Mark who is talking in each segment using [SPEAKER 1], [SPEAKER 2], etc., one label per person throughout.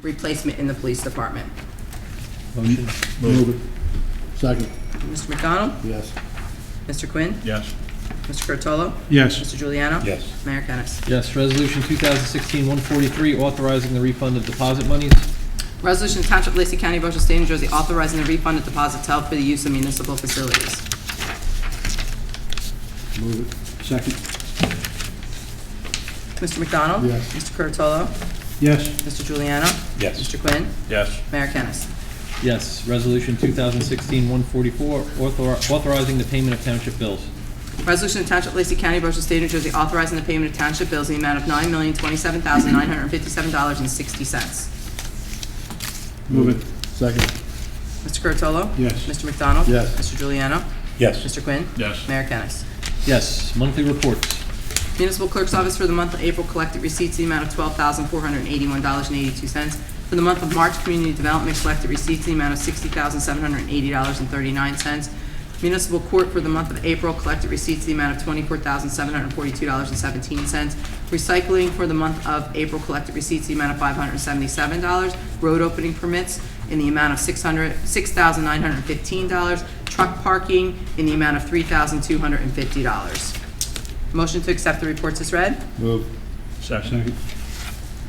[SPEAKER 1] replacement in the police department.
[SPEAKER 2] Motion. Move it. Second,
[SPEAKER 1] Mr. McDonald?
[SPEAKER 2] yes.
[SPEAKER 1] Mr. Quinn?
[SPEAKER 3] Yes.
[SPEAKER 1] Mr. Curatolo?
[SPEAKER 2] Yes.
[SPEAKER 1] Mr. Juliano?
[SPEAKER 3] Yes.
[SPEAKER 1] Mayor Kennas.
[SPEAKER 4] Yes, Resolution 2016-143, authorizing the refund of deposit monies.
[SPEAKER 1] Resolution to Township of Lacey County, Ocean State, New Jersey, authorizing the refund of deposits held for the use of municipal facilities.
[SPEAKER 2] Move it. Second,
[SPEAKER 1] Mr. McDonald?
[SPEAKER 2] Yes.
[SPEAKER 1] Mr. Curatolo?
[SPEAKER 2] yes.
[SPEAKER 1] Mr. Juliano?
[SPEAKER 3] Yes.
[SPEAKER 1] Mr. Quinn?
[SPEAKER 3] Yes.
[SPEAKER 1] Mayor Kennas.
[SPEAKER 4] Yes, Resolution 2016-144, author- authorizing the payment of township bills.
[SPEAKER 1] Resolution to Township of Lacey County, Ocean State, New Jersey, authorizing the payment of township bills in the amount of nine million twenty-seven thousand nine hundred fifty-seven dollars and sixty cents.
[SPEAKER 2] Move it. Second,
[SPEAKER 1] Mr. Curatolo?
[SPEAKER 2] Yes.
[SPEAKER 1] Mr. McDonald?
[SPEAKER 2] Yes.
[SPEAKER 1] Mr. Juliano?
[SPEAKER 3] Yes.
[SPEAKER 1] Mr. Quinn?
[SPEAKER 3] Yes.
[SPEAKER 1] Mayor Kennas.
[SPEAKER 4] Yes, monthly reports.
[SPEAKER 1] Municipal Clerk's Office for the month of April collected receipts in the amount of twelve thousand four hundred and eighty-one dollars and eighty-two cents. For the month of March, Community Development collected receipts in the amount of sixty thousand seven hundred and eighty dollars and thirty-nine cents. Municipal Court for the month of April collected receipts in the amount of twenty-four thousand seven hundred and forty-two dollars and seventeen cents. Recycling for the month of April collected receipts in the amount of five hundred and seventy-seven dollars. Road opening permits in the amount of six hundred, six thousand nine hundred and fifteen dollars. Truck parking in the amount of three thousand two hundred and fifty dollars. Motion to accept the reports is read.
[SPEAKER 2] move.
[SPEAKER 3] Second.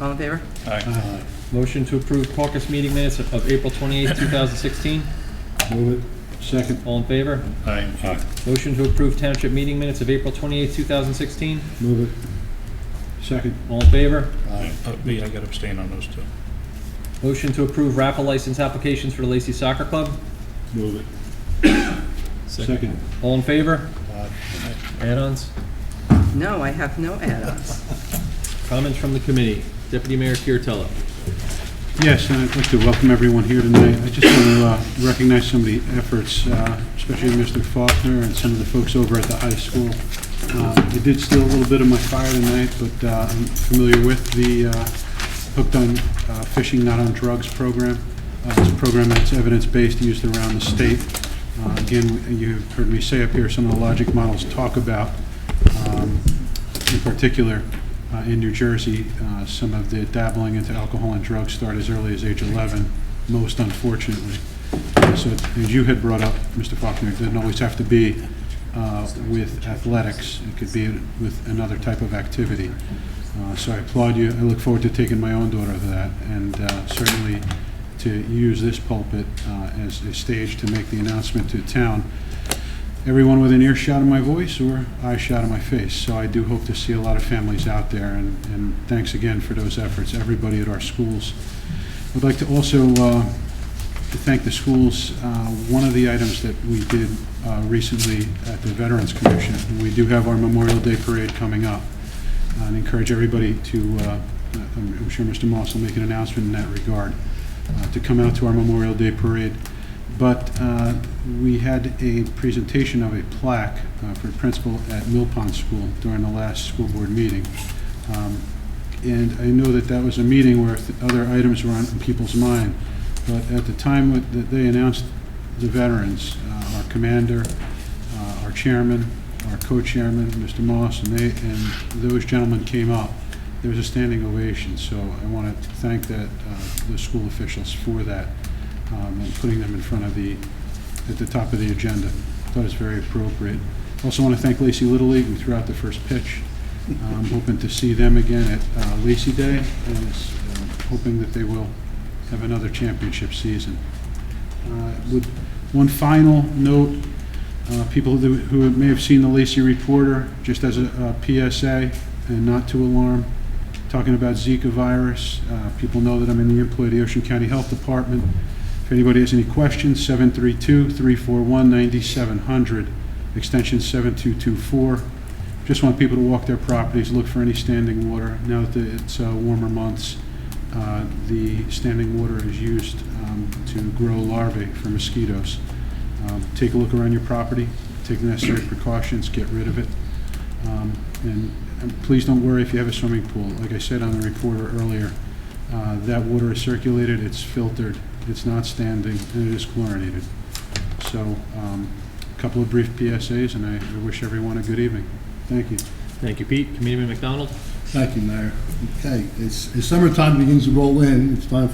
[SPEAKER 1] All in favor?
[SPEAKER 3] Aye.
[SPEAKER 2] Aye.
[SPEAKER 4] Motion to approve caucus meeting minutes of of April 28, 2016.
[SPEAKER 2] Move it. Second,
[SPEAKER 4] All in favor?
[SPEAKER 3] Aye. Aye.
[SPEAKER 4] Motion to approve township meeting minutes of April 28, 2016.
[SPEAKER 2] move it. Second,
[SPEAKER 4] All in favor?
[SPEAKER 2] aye.
[SPEAKER 3] Uh, B, I got abstain on those two.
[SPEAKER 4] Motion to approve raffle license applications for the Lacey Soccer Club.
[SPEAKER 2] Move it. Second,
[SPEAKER 4] All in favor?
[SPEAKER 2] aye.
[SPEAKER 4] Add-ons?
[SPEAKER 1] No, I have no add-ons.
[SPEAKER 4] Comments from the committee? Deputy Mayor Kuratello.
[SPEAKER 5] Yes, and I'd like to welcome everyone here tonight. I just want to uh, recognize some of the efforts, uh, especially Mr. Faulkner and some of the folks over at the high school. Um, I did steal a little bit of my fire tonight, but uh, I'm familiar with the uh, Hooked on uh, Fishing Not on Drugs program. Uh, It's a program that's evidence-based, used around the state. Uh, Again, you've heard me say up here, some of the logic models talk about um, in particular, uh, in New Jersey, uh, some of the dabbling into alcohol and drugs start as early as age 11, most unfortunately. Uh, So as you had brought up, Mr. Faulkner, it doesn't always have to be uh, with athletics. It could be with another type of activity. Uh, So I applaud you. I look forward to taking my own daughter to that, and uh, certainly to use this pulpit uh, as a stage to make the announcement to town everyone within earshot of my voice or eye shot of my face. So I do hope to see a lot of families out there, and, and thanks again for those efforts, everybody at our schools. I'd like to also uh, to thank the schools. Uh, One of the items that we did uh, recently at the Veterans Commission, and we do have our Memorial Day Parade coming up, Uh, and encourage everybody to, uh, I'm I'm sure Mr. Moss will make an announcement in that regard, uh, to come out to our Memorial Day Parade. But uh, we had a presentation of a plaque uh, for a principal at Mill Pond School during the last school board meeting. Um, And I know that that was a meeting where th- other items were on people's mind, but at the time when- that they announced the veterans, uh, our commander, uh, our chairman, our co-chairman, Mr. Moss, and they, and those gentlemen came up. There was a standing ovation, so I want to thank that, uh, the school officials for that, um, and putting them in front of the, at the top of the agenda. Thought it was very appropriate. Also want to thank Lacey Little League, who threw out the first pitch. Uh, I'm hoping to see them again at uh, Lacey Day, and um, hoping that they will have another championship season. Uh, With One final note, uh, people who who may have seen the Lacey Reporter, just as a uh, PSA, and not to alarm, talking about Zika virus. Uh, People know that I'm in the employ of the Ocean County Health Department. If anybody has any questions, 732-341-9700, extension 7224. Just want people to walk their properties, look for any standing water. Now that the- it's uh, warmer months, uh, the standing water is used um, to grow larvae for mosquitoes. Um, Take a look around your property, take the necessary precautions, get rid of it. Um, And and please don't worry if you have a swimming pool. Like I said on the recorder earlier, uh, that water is circulated, it's filtered, it's not standing, and it is chlorinated. So, um, a couple of brief PSAs, and I I wish everyone a good evening. Thank you.
[SPEAKER 4] Thank you, Pete. Committeeman McDonald?
[SPEAKER 2] Thank you, Mayor. Okay, it's, as summertime begins to roll in, it's time for